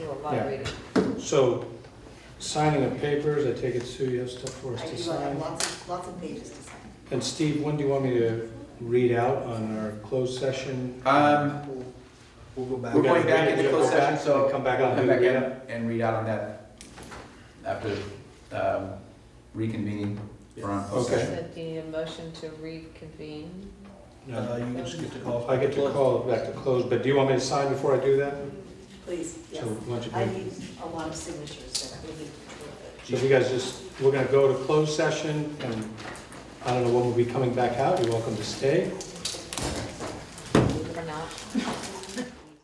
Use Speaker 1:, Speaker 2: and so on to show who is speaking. Speaker 1: a lot of
Speaker 2: Yeah.
Speaker 1: reading.
Speaker 2: So, signing of papers, I take it, Sue, you have stuff for us
Speaker 3: I
Speaker 2: to
Speaker 3: do, I have
Speaker 2: sign?
Speaker 3: lots of, lots of pages to sign.
Speaker 2: And Steve, when do you want me to read out on our closed session?
Speaker 4: Um,
Speaker 5: We'll go back.
Speaker 4: We're going back
Speaker 2: We'll
Speaker 4: into
Speaker 2: go
Speaker 4: closed
Speaker 2: back,
Speaker 4: session, so
Speaker 2: we Come back
Speaker 4: I'll
Speaker 2: out
Speaker 4: come
Speaker 2: and
Speaker 4: back
Speaker 2: do
Speaker 4: in
Speaker 2: it again?
Speaker 4: and read out on that after um, reconvening from closed
Speaker 2: Okay.
Speaker 4: session.
Speaker 1: So do you need a motion to reconvene?
Speaker 5: Uh,
Speaker 2: No.
Speaker 5: you can just get to call.
Speaker 2: I get to call it back to close, but do you want me to sign before I do that?
Speaker 3: Please, yes.
Speaker 2: So why don't you
Speaker 3: I
Speaker 2: do-
Speaker 3: need a lot of signatures that I will need to
Speaker 2: So if you guys just, we're gonna go to closed session, and I don't know when we'll be coming back out, you're welcome to stay.